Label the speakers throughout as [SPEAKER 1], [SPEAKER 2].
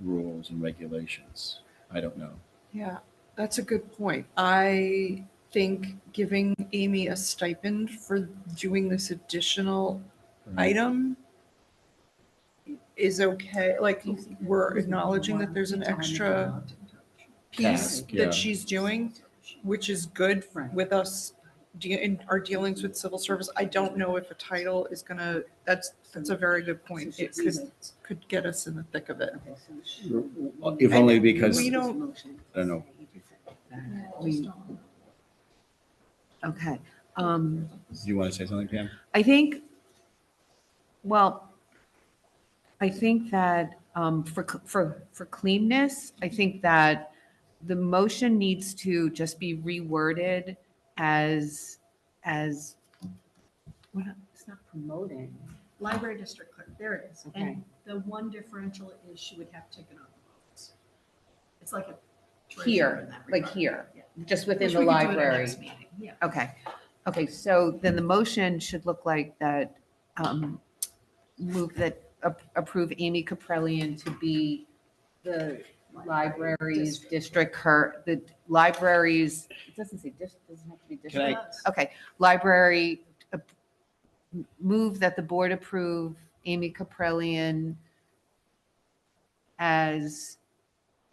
[SPEAKER 1] rules and regulations. I don't know.
[SPEAKER 2] Yeah, that's a good point. I think giving Amy a stipend for doing this additional
[SPEAKER 1] Mm-hmm.
[SPEAKER 2] item is okay, like, we're acknowledging that there's an extra piece
[SPEAKER 1] Task, yeah.
[SPEAKER 2] that she's doing, which is good
[SPEAKER 3] Right.
[SPEAKER 2] with us de- in our dealings with civil service. I don't know if a title is gonna, that's, that's a very good point. It could, could get us in the thick of it.
[SPEAKER 1] If only
[SPEAKER 2] And
[SPEAKER 1] because,
[SPEAKER 2] we
[SPEAKER 1] I
[SPEAKER 2] don't-
[SPEAKER 1] don't know,
[SPEAKER 3] We- Okay, um,
[SPEAKER 1] do you want to say something, Pam?
[SPEAKER 3] I think, well, I think that, um, for, cl- for, for cleanness, I think that the motion needs to just be reworded as, as, what, it's not promoting.
[SPEAKER 4] Library district clerk, there it is.
[SPEAKER 3] Okay.
[SPEAKER 4] And the one differential is she would have taken on the votes. It's like a. treasurer
[SPEAKER 3] Here,
[SPEAKER 4] in that
[SPEAKER 3] like
[SPEAKER 4] regard.
[SPEAKER 3] here,
[SPEAKER 4] Yeah.
[SPEAKER 3] just within
[SPEAKER 4] Which
[SPEAKER 3] the
[SPEAKER 4] we could do at our
[SPEAKER 3] library.
[SPEAKER 4] next meeting, Yeah.
[SPEAKER 3] Okay, okay, so then the motion should look like that, um, move that ap- approve Amy Caprellian to be the library's district, her, the library's, it doesn't say dis, doesn't have to be
[SPEAKER 1] I-
[SPEAKER 3] district. Okay, library, uh, m- move that the board approve Amy Caprellian as,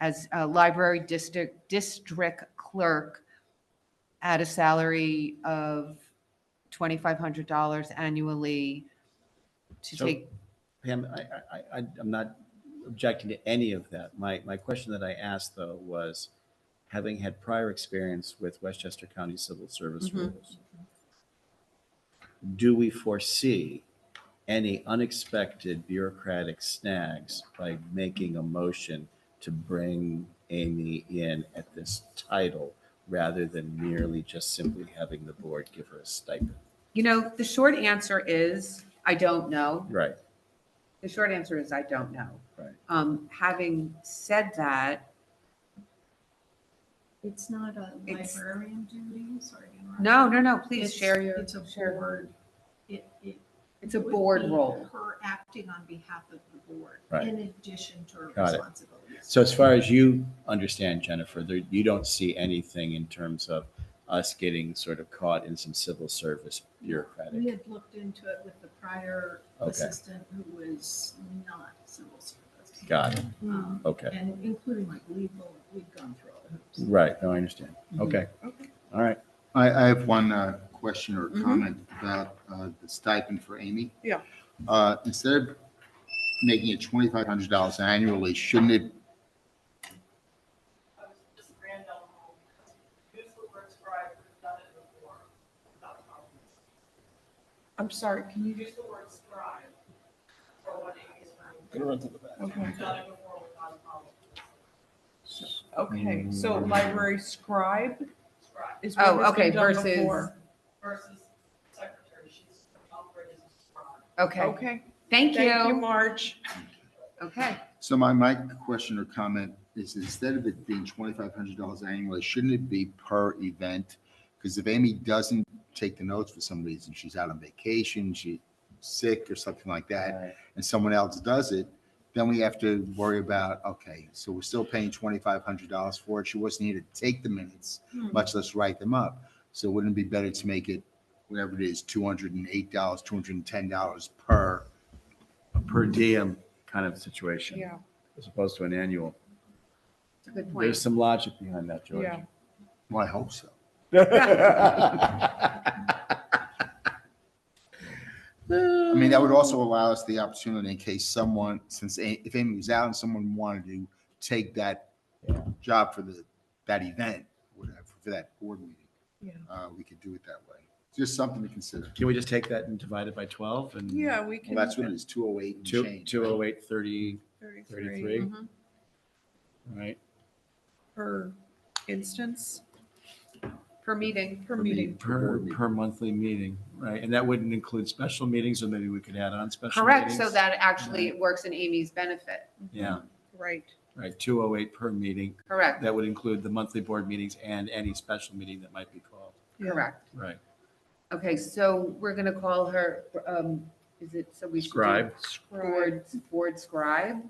[SPEAKER 3] as a library district, district clerk at a salary of $2,500 annually to
[SPEAKER 1] So-
[SPEAKER 3] take,
[SPEAKER 1] Pam, I, I- I, I- I'm not objecting to any of that. My, my question that I asked though was, having had prior experience with Westchester County Civil Service
[SPEAKER 2] Mhm.
[SPEAKER 1] rules, do we foresee any unexpected bureaucratic snags by making a motion to bring Amy in at this title rather than merely just simply having the board give her a stipend?
[SPEAKER 3] you know, the short answer is, I don't know.
[SPEAKER 1] Right,
[SPEAKER 3] The short answer is I don't know.
[SPEAKER 1] Right.
[SPEAKER 3] Um, having said that,
[SPEAKER 4] It's not a
[SPEAKER 3] It's-
[SPEAKER 4] librarian duty, sorry. to interrupt.
[SPEAKER 3] no, no, no, please
[SPEAKER 4] It's-
[SPEAKER 3] share your.
[SPEAKER 4] It's a
[SPEAKER 3] share.
[SPEAKER 4] board. It, it.
[SPEAKER 3] It's a
[SPEAKER 4] would
[SPEAKER 3] board
[SPEAKER 4] be
[SPEAKER 3] role.
[SPEAKER 4] Her acting on behalf of the board.
[SPEAKER 1] Right.
[SPEAKER 4] In addition to her
[SPEAKER 1] Got it.
[SPEAKER 4] responsibilities.
[SPEAKER 1] So as far as you understand, Jennifer, there, you don't see anything in terms of us getting sort of caught in some civil service
[SPEAKER 4] We
[SPEAKER 1] bureaucratic.
[SPEAKER 4] had looked into it with the prior
[SPEAKER 1] Okay.
[SPEAKER 4] assistant who was not civil service.
[SPEAKER 1] Got it.
[SPEAKER 4] Um,
[SPEAKER 1] Okay.
[SPEAKER 4] And including like legal, we've gone through all the hoops.
[SPEAKER 1] Right. No, I understand. Okay.
[SPEAKER 2] Mm-hmm. Okay.
[SPEAKER 1] All right.
[SPEAKER 5] I, I have one uh, question or
[SPEAKER 2] Mhm.
[SPEAKER 5] comment about uh, the stipend for Amy.
[SPEAKER 2] Yeah.
[SPEAKER 5] Uh, Instead of making it twenty-five hundred dollars annually, shouldn't it,
[SPEAKER 6] I was just random because use the word scribe, we've done it before. without problems.
[SPEAKER 2] I'm sorry, can you,
[SPEAKER 6] Use the word scribe for what it is.
[SPEAKER 2] okay.
[SPEAKER 6] We've done it before without problems.
[SPEAKER 2] Okay, so
[SPEAKER 1] Mm-hmm.
[SPEAKER 2] library scribe
[SPEAKER 6] Scribe
[SPEAKER 2] is
[SPEAKER 3] Oh,
[SPEAKER 2] what
[SPEAKER 3] okay,
[SPEAKER 2] has been done
[SPEAKER 3] versus-
[SPEAKER 2] before.
[SPEAKER 6] versus secretary, she's operating as a scribe.
[SPEAKER 3] Okay,
[SPEAKER 2] Okay,
[SPEAKER 3] thank
[SPEAKER 2] thank you,
[SPEAKER 3] you.
[SPEAKER 2] Marge.
[SPEAKER 3] Okay,
[SPEAKER 5] so my, my question or comment is instead of it being twenty-five hundred dollars annually, shouldn't it be per event? Because if Amy doesn't take the notes for some reason, she's out on vacation, she's sick or something like that, and someone else does it, then we have to worry about, okay, so we're still paying twenty-five hundred dollars for it. She wasn't here to take the minutes. much less write them up. So wouldn't it be better to make it, whatever it is, two hundred and eight dollars, two hundred and ten dollars per?
[SPEAKER 1] Per diem kind of situation.
[SPEAKER 2] Yeah,
[SPEAKER 1] As opposed to an annual.
[SPEAKER 3] it's a good
[SPEAKER 1] There's
[SPEAKER 3] point.
[SPEAKER 1] some logic behind that, George.
[SPEAKER 2] yeah.
[SPEAKER 5] Well, I hope so. I mean, that would also allow us the opportunity in case someone, since A- if Amy was out and someone wanted to take that
[SPEAKER 1] Yeah.
[SPEAKER 5] job for the, that event, whatever, for that board meeting.
[SPEAKER 2] Yeah.
[SPEAKER 5] Uh, we could do it that way. Just something to consider.
[SPEAKER 1] Can we just take that and divide it by 12 and?
[SPEAKER 2] Yeah, we
[SPEAKER 5] Well,
[SPEAKER 2] can.
[SPEAKER 5] that's what it is, two oh eight and
[SPEAKER 1] Two,
[SPEAKER 5] change.
[SPEAKER 1] two oh eight, thirty,
[SPEAKER 2] 33
[SPEAKER 1] thirty-three,
[SPEAKER 3] Mhm.
[SPEAKER 1] right?
[SPEAKER 2] per instance,
[SPEAKER 3] Per meeting.
[SPEAKER 2] per meeting.
[SPEAKER 1] Per, per monthly meeting, right? And that wouldn't include special meetings, or maybe we could add on special
[SPEAKER 3] Correct,
[SPEAKER 1] meetings.
[SPEAKER 3] so that actually it works in Amy's benefit.
[SPEAKER 1] Yeah,
[SPEAKER 2] Right.
[SPEAKER 1] right, two oh eight per meeting.
[SPEAKER 3] Correct,
[SPEAKER 1] That would include the monthly board meetings and any special meeting that might be called.
[SPEAKER 2] yeah.
[SPEAKER 3] correct.
[SPEAKER 1] Right.
[SPEAKER 3] Okay, so we're going to call her, um, is it, so we should do
[SPEAKER 1] Scribe.
[SPEAKER 2] Scribe.
[SPEAKER 3] board, board scribe?